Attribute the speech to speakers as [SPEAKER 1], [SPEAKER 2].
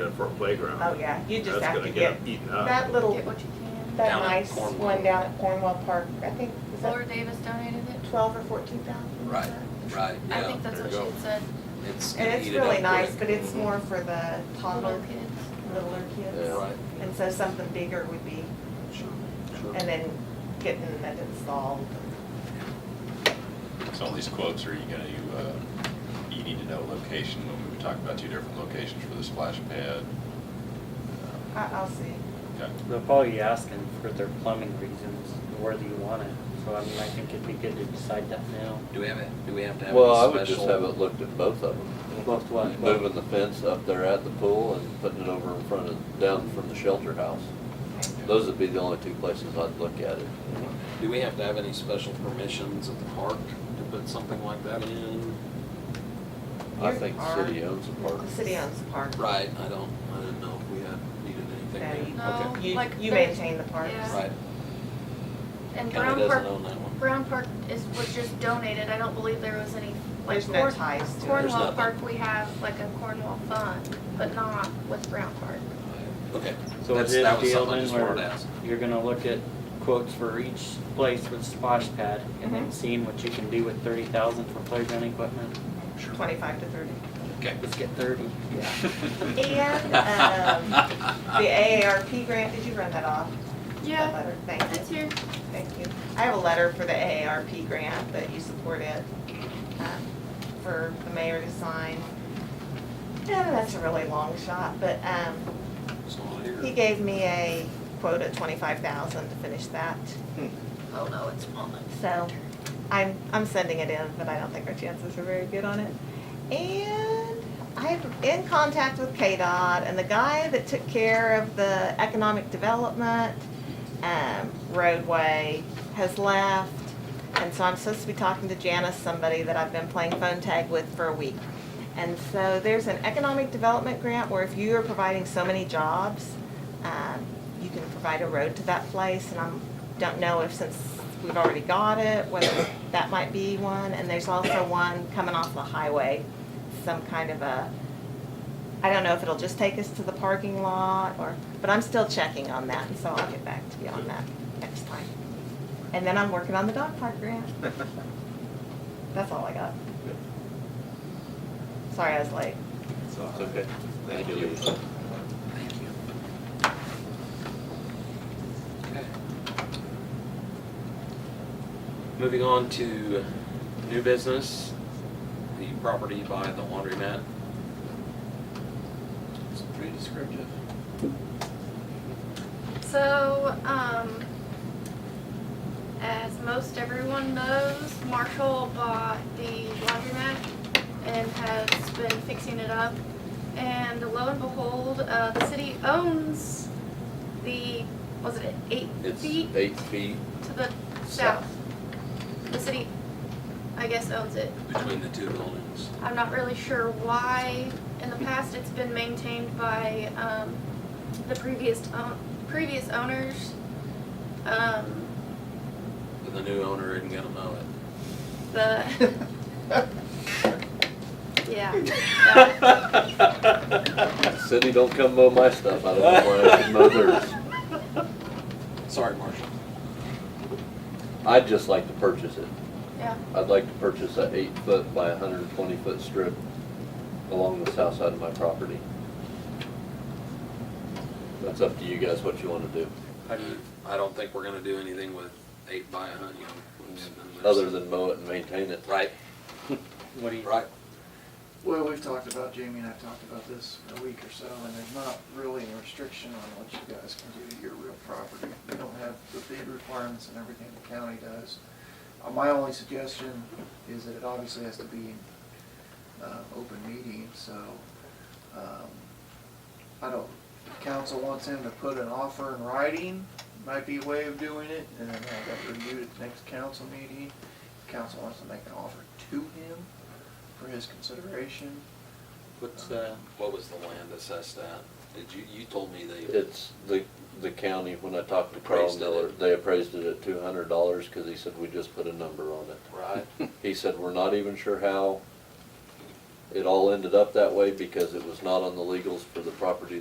[SPEAKER 1] in for a playground.
[SPEAKER 2] Oh, yeah, you just
[SPEAKER 1] That's
[SPEAKER 2] have
[SPEAKER 1] gonna
[SPEAKER 2] to get,
[SPEAKER 1] Eaten up.
[SPEAKER 2] that little,
[SPEAKER 3] Get what you can.
[SPEAKER 2] that
[SPEAKER 4] Down at
[SPEAKER 2] nice
[SPEAKER 4] Cornwall.
[SPEAKER 2] one down at Cornwall Park, I think, was
[SPEAKER 3] Laura
[SPEAKER 2] that
[SPEAKER 3] Davis donated it.
[SPEAKER 2] twelve or fourteen thousand?
[SPEAKER 4] Right, right,
[SPEAKER 3] I
[SPEAKER 4] yeah.
[SPEAKER 3] think that's
[SPEAKER 1] There
[SPEAKER 3] what
[SPEAKER 1] you
[SPEAKER 3] she
[SPEAKER 1] go.
[SPEAKER 3] had said.
[SPEAKER 4] It's gonna
[SPEAKER 2] And it's
[SPEAKER 4] eat it up
[SPEAKER 2] really
[SPEAKER 4] quick.
[SPEAKER 2] nice, but
[SPEAKER 4] Mm-hmm.
[SPEAKER 2] it's more for the
[SPEAKER 3] Mm-hmm. Little
[SPEAKER 2] toddler,
[SPEAKER 3] kids.
[SPEAKER 2] littler
[SPEAKER 4] Yeah,
[SPEAKER 2] kids.
[SPEAKER 4] Right. Mm-hmm.
[SPEAKER 2] And so something bigger would be,
[SPEAKER 4] Sure, sure.
[SPEAKER 2] and then getting it installed.
[SPEAKER 5] So all these quotes, are you gonna, you, uh, you need to know location, when we were talking about two different locations for the splash pad. uh,
[SPEAKER 2] I, I'll see.
[SPEAKER 5] Okay.
[SPEAKER 6] They'll probably be asking for their plumbing reasons, where do you want it? So I mean, I think it'd be good to decide that now.
[SPEAKER 4] Do we have, it? do we have to have
[SPEAKER 7] Well, I
[SPEAKER 4] a
[SPEAKER 7] would just have
[SPEAKER 4] special?
[SPEAKER 7] it looked at both of them.
[SPEAKER 6] Both what?
[SPEAKER 7] Moving the fence up there at the pool and putting it over in front of, down from the shelter house. Those would be the only two places I'd look at it.
[SPEAKER 4] Do we have to have any special permissions at the park to put something like that in?
[SPEAKER 7] I
[SPEAKER 2] Here
[SPEAKER 7] think the
[SPEAKER 2] are-
[SPEAKER 7] city owns the park.
[SPEAKER 2] The city owns the park.
[SPEAKER 4] Right, I don't, I didn't know if we had needed anything
[SPEAKER 2] No,
[SPEAKER 4] there.
[SPEAKER 3] No,
[SPEAKER 4] Okay.
[SPEAKER 2] You,
[SPEAKER 3] Oh, like
[SPEAKER 2] you
[SPEAKER 3] there's-
[SPEAKER 2] maintain the parks.
[SPEAKER 3] yeah.
[SPEAKER 4] Right,
[SPEAKER 3] And Brown
[SPEAKER 4] county doesn't
[SPEAKER 3] Park,
[SPEAKER 4] own that one.
[SPEAKER 3] Brown Park is, was just donated. I don't believe there was any. like,
[SPEAKER 2] There's no
[SPEAKER 3] Corn-
[SPEAKER 2] ties to it.
[SPEAKER 4] There's
[SPEAKER 3] Cornwall
[SPEAKER 4] nothing.
[SPEAKER 3] Park, we have like a Cornwall fund, but not with Brown Park.
[SPEAKER 4] Okay.
[SPEAKER 6] So
[SPEAKER 4] That's-
[SPEAKER 6] is it
[SPEAKER 4] that
[SPEAKER 6] a
[SPEAKER 4] was
[SPEAKER 6] deal
[SPEAKER 4] something I
[SPEAKER 6] then
[SPEAKER 4] just wanted to
[SPEAKER 6] where
[SPEAKER 4] ask.
[SPEAKER 6] you're gonna look at quotes for each place with splash pad and then seeing what you can do with thirty thousand for playground equipment?
[SPEAKER 2] Twenty-five to thirty.
[SPEAKER 4] Okay.
[SPEAKER 6] Let's get thirty.
[SPEAKER 2] And, um, the AARP grant, did you run that off? That letter? Thank you.
[SPEAKER 3] It's here.
[SPEAKER 2] Thank you. I have a letter for the AARP grant that you supported um, for the mayor to sign. Yeah, that's a really long shot, but um,
[SPEAKER 4] It's not
[SPEAKER 2] he
[SPEAKER 4] here.
[SPEAKER 2] gave me a quote of twenty-five thousand to finish that.
[SPEAKER 3] Oh, no, it's on it.
[SPEAKER 2] So I'm, I'm sending it in, but I don't think our chances are very good on it. And I'm in contact with KDOT and the guy that took care of the economic development, um, roadway has left. And so I'm supposed to be talking to Janice, somebody that I've been playing phone tag with for a week. And so there's an economic development grant where if you are providing so many jobs, um, you can provide a road to that place. And I don't know if since we've already got it, whether that might be one. And there's also one coming off the highway, some kind of a, I don't know if it'll just take us to the parking lot or, but I'm still checking on that. And so I'll get back to you on that next time. And then I'm working on the dog park grant. That's all I got. Sorry I was late.
[SPEAKER 7] It's okay.
[SPEAKER 4] Thank
[SPEAKER 7] Thank
[SPEAKER 4] you.
[SPEAKER 7] you.
[SPEAKER 4] Thank you. Okay. Moving on to new business, the property by the laundromat. It's pretty descriptive.
[SPEAKER 3] So, um, as most everyone knows, Marshall bought the laundromat and has been fixing it up. And lo and behold, uh, the city owns the, was it eight
[SPEAKER 7] It's
[SPEAKER 3] feet
[SPEAKER 7] eight feet.
[SPEAKER 3] to the south?
[SPEAKER 7] South.
[SPEAKER 3] The city, I guess, owns it.
[SPEAKER 4] Between the two buildings.
[SPEAKER 3] I'm not really sure why. In the past, it's been maintained by um, the previous own previous owners. Um,
[SPEAKER 4] But the new owner isn't gonna mow it.
[SPEAKER 3] the yeah. that.
[SPEAKER 7] City don't come mow my stuff. I don't know why I should mow theirs.
[SPEAKER 4] Sorry, Marshall.
[SPEAKER 7] I'd just like to purchase it.
[SPEAKER 3] yeah.
[SPEAKER 7] I'd like to purchase a eight foot by hundred and twenty foot strip along the south side of my property. That's up to you guys what you wanna do,
[SPEAKER 4] I mean, I don't think we're gonna do anything with eight by a hundred, you know.
[SPEAKER 7] other than mow it and maintain it.
[SPEAKER 4] Right,
[SPEAKER 6] What do you?
[SPEAKER 4] right.
[SPEAKER 8] Well, we've talked about, Jamie and I've talked about this for a week or so, and there's not really any restriction on what you guys can do to your real property. We don't have the bid requirements and everything the county does. Uh, My only suggestion is that it obviously has to be uh, open meeting, so um, I don't, if council wants him to put an offer in writing, might be a way of doing it, and then have that reviewed at the next council meeting. Council wants to make an offer to him for his consideration.
[SPEAKER 6] What's, uh,
[SPEAKER 4] What was the land assessed at? Did you, you told me they.
[SPEAKER 7] It's the, the county, when I talked to Carl
[SPEAKER 4] Appraised it at-
[SPEAKER 7] Miller, they appraised it at two hundred dollars, cause he said, we just put a number on it.
[SPEAKER 4] Right,
[SPEAKER 7] He said, we're not even sure how, It all ended up that way because it was not on the legals for the property